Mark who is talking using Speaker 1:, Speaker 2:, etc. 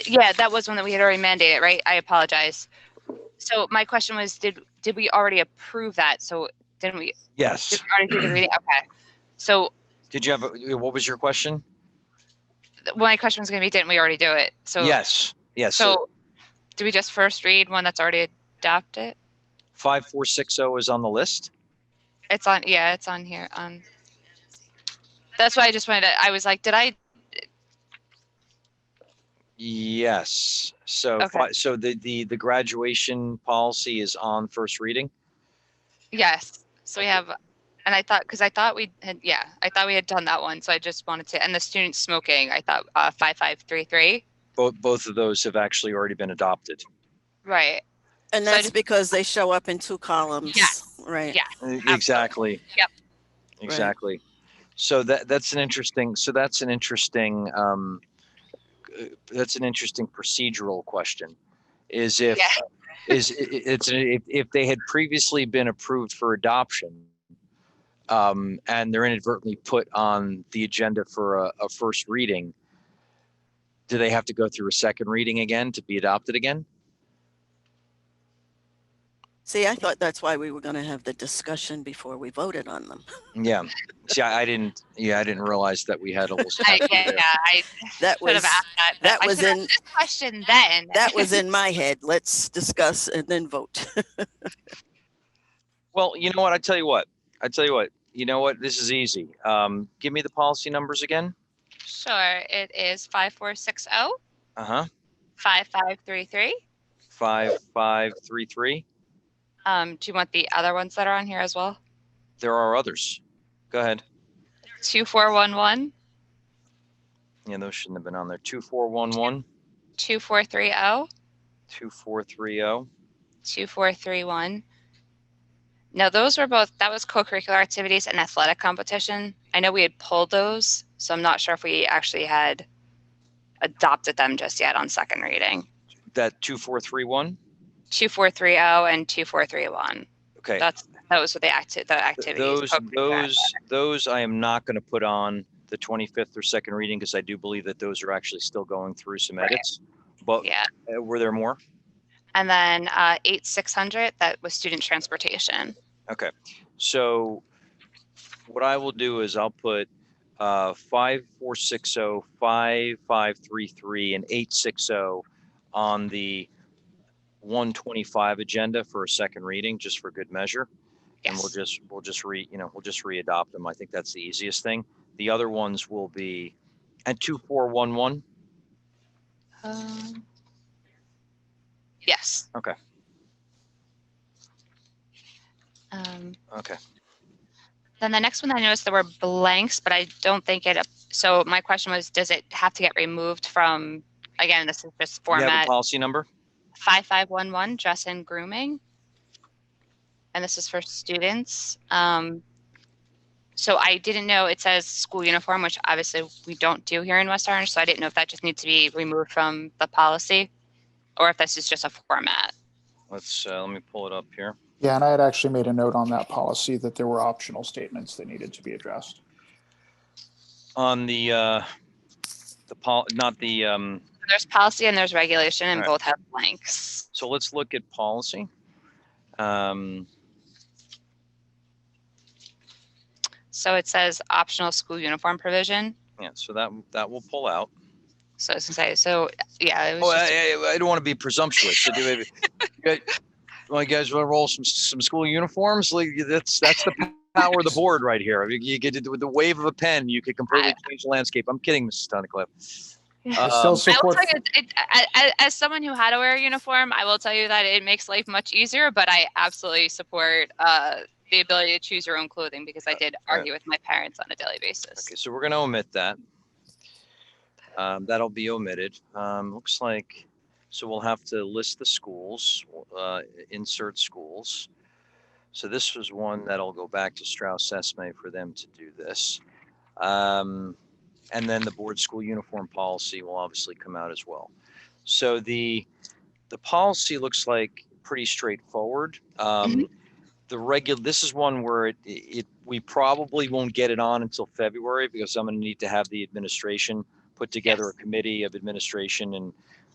Speaker 1: Yeah, that was one that we had already mandated, right? I apologize. So my question was, did, did we already approve that? So didn't we, did
Speaker 2: Yes.
Speaker 1: we already do the reading? Okay. So
Speaker 2: Did you have, a- what was your question?
Speaker 1: th- my question was gonna be, didn't we already do it? So,
Speaker 2: Yes, yes.
Speaker 1: so do we just first read one that's already adopted?
Speaker 2: 5460 is on the list.
Speaker 1: It's on, yeah, it's on here. Um, that's why I just wanted to, I was like, did I,
Speaker 2: Yes. So,
Speaker 1: Okay.
Speaker 2: fi- so the, the, the graduation policy is on first reading.
Speaker 1: yes. So we have, and I thought, cause I thought we had, yeah, I thought we had done that one. So I just wanted to, and the student smoking, I thought, uh, five, five, three, three.
Speaker 2: Both, both of those have actually already been adopted.
Speaker 1: Right.
Speaker 3: And
Speaker 1: So I
Speaker 3: that's
Speaker 1: just-
Speaker 3: because they show up in two columns,
Speaker 1: Yes.
Speaker 3: right?
Speaker 1: Yeah.
Speaker 2: Uh, Exactly.
Speaker 1: Yep.
Speaker 2: Exactly. So that, that's an interesting, so that's an interesting, um, uh, that's an interesting procedural question. Is if,
Speaker 1: Yeah.
Speaker 2: is, i- i- it's, if, if they had previously been approved for adoption, um, and they're inadvertently put on the agenda for a, a first reading, do they have to go through a second reading again to be adopted again?
Speaker 3: See, I thought that's why we were going to have the discussion before we voted on them.
Speaker 2: Yeah. See, I, I didn't, yeah, I didn't realize that we had a little.
Speaker 1: I,
Speaker 2: statute
Speaker 1: yeah,
Speaker 2: there.
Speaker 1: I
Speaker 3: That
Speaker 1: should
Speaker 3: was,
Speaker 1: have asked that.
Speaker 3: that
Speaker 1: I
Speaker 3: was
Speaker 1: should have
Speaker 3: in-
Speaker 1: asked this question then.
Speaker 3: that was in my head. Let's discuss and then vote.
Speaker 2: Well, you know what? I tell you what. I tell you what. You know what? This is easy. Um, give me the policy numbers again.
Speaker 1: Sure, it is five four six oh
Speaker 2: Uh huh.
Speaker 1: five five three three.
Speaker 2: Five five three three.
Speaker 1: Um, do you want the other ones that are on here as well?
Speaker 2: There are others. Go ahead.
Speaker 1: Two four one one,
Speaker 2: Yeah, those shouldn't have been on there. Two four one one.
Speaker 1: two four three oh,
Speaker 2: Two four three oh. zero.
Speaker 1: two four three one. Now, those were both, that was co-curricular activities and athletic competition. I know we had pulled those, so I'm not sure if we actually had adopted them just yet on second reading.
Speaker 2: That two four three one.
Speaker 1: Two four three oh and two four three one.
Speaker 2: Okay.
Speaker 1: That's, those were the acti- the
Speaker 2: Th-
Speaker 1: activities.
Speaker 2: Those
Speaker 1: co-curricular
Speaker 2: those those I am not going to put on the twenty fifth or second reading because I do believe that those are actually still going through some
Speaker 1: Right.
Speaker 2: edits. But
Speaker 1: Yeah,
Speaker 2: uh, were there more?
Speaker 1: and then uh, eight six hundred that was student transportation.
Speaker 2: Okay, so what I will do is I'll put uh, five, four, six, oh, five, five, three, three, and eight, six, oh on the one twenty-five agenda for a second reading, just for good measure. And we'll
Speaker 1: Yes,
Speaker 2: just, we'll just re, you know, we'll just re-adopt them. I think that's the easiest thing. The other ones will be, and two, four, one, one.
Speaker 1: Um, yes.
Speaker 2: Okay.
Speaker 1: Um,
Speaker 2: Okay,
Speaker 1: then the next one I noticed there were blanks, but I don't think it. So my question was, does it have to get removed from? Again, this is just
Speaker 2: you have a
Speaker 1: format
Speaker 2: policy number?
Speaker 1: five five one one dress and grooming, and this is for students. Um, so I didn't know it says school uniform, which obviously we don't do here in West Orange. So I didn't know if that just needs to be removed from the policy, or if this is just a format.
Speaker 2: Let's, uh, let me pull it up here.
Speaker 4: Yeah, and I had actually made a note on that policy that there were optional statements that needed to be addressed.
Speaker 2: On the, uh, the pol, not the, um,
Speaker 1: There's policy and there's regulation, and
Speaker 2: Right.
Speaker 1: both have blanks.
Speaker 2: So let's look at policy. Um,
Speaker 1: So it says optional school uniform provision.
Speaker 2: yeah, so that, that will pull out.
Speaker 1: So I was gonna say, so yeah, it was
Speaker 2: Oh,
Speaker 1: just a-
Speaker 2: I, I- I don't want to be presumptuous. So do we- you guys- well, you guys want to roll some, some school uniforms? Like that's, that's the power of the board right here. You- You get it with the wave of a pen, you could completely change the landscape. I'm kidding, Mrs. Tunnicliff.
Speaker 4: I still
Speaker 2: Um,
Speaker 1: I will
Speaker 4: support,
Speaker 1: tell you, it, I, I, as someone who had to wear a uniform, I will tell you that it makes life much easier. But I absolutely support uh, the ability to choose your own clothing because I did
Speaker 2: right.
Speaker 1: argue with my parents on a daily basis.
Speaker 2: Okay, so we're gonna omit that. Um, that'll be omitted. Um, looks like, so we'll have to list the schools, uh, insert schools. So this was one that'll go back to Strauss Esme for them to do this. Um, and then the board school uniform policy will obviously come out as well. So the, the policy looks like pretty straightforward. Um, the regular, this is one where it, it, we probably won't get it on until February because I'm gonna need to have the administration put together a committee of administration and